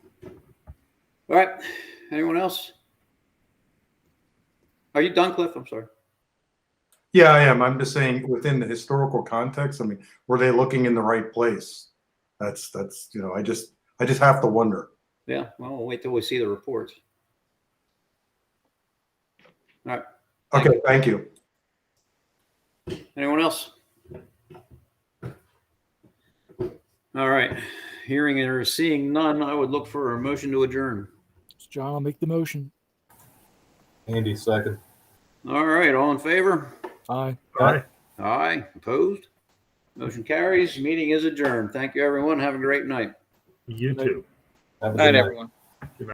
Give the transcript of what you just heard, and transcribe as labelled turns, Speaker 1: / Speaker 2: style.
Speaker 1: All right. Anyone else? Are you done, Cliff? I'm sorry.
Speaker 2: Yeah, I am. I'm just saying within the historical context, I mean, were they looking in the right place? That's, that's, you know, I just, I just have to wonder.
Speaker 1: Yeah, well, we'll wait till we see the reports. All right. Thank
Speaker 2: Okay, thank you.
Speaker 1: Anyone else? All right. Hearing or seeing none, I would look for a motion to adjourn.
Speaker 3: John, I'll make the motion.
Speaker 4: Andy, second.
Speaker 1: All right. All in favor?
Speaker 3: Aye.
Speaker 4: Aye.
Speaker 1: Aye. Opposed? Motion carries. Meeting is adjourned. Thank you, everyone. Have a great night.
Speaker 5: You
Speaker 3: Right.
Speaker 5: too.
Speaker 4: Have a good
Speaker 6: Night,
Speaker 4: night.
Speaker 6: everyone.